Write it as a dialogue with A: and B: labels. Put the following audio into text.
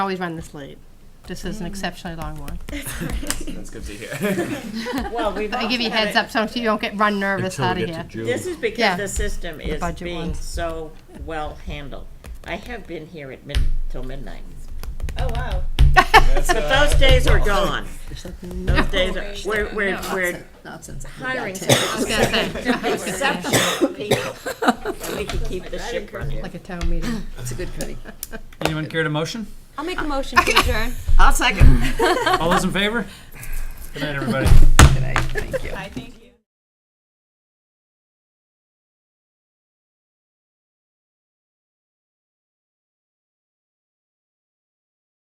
A: Always run this late. This
B: Mm.
A: is an exceptionally long one.
C: That's good to hear.
B: Well, we've
A: I
B: also
A: give you a
B: had
A: heads
B: it,
A: up so you don't get run nervous
D: Until
A: out
D: we
A: of
D: get to
A: here.
D: June.
B: this is
A: Yeah,
B: because the system
A: the
B: is
A: budget
B: being
A: ones.
B: so well handled. I have been here at mid, till midnight.
E: Oh, wow.
B: But those days are gone. Those days are, we're, we're, we're
F: Not since.
B: hiring
A: I was gonna say,
B: exceptional people. And we can keep the ship running.
A: like a town meeting.
F: It's a good committee.
G: Anyone care to motion?
E: I'll make a motion to adjourn.
F: I'll second.
G: All those in favor? Good night, everybody.
F: Good night. Thank you.
E: I thank you.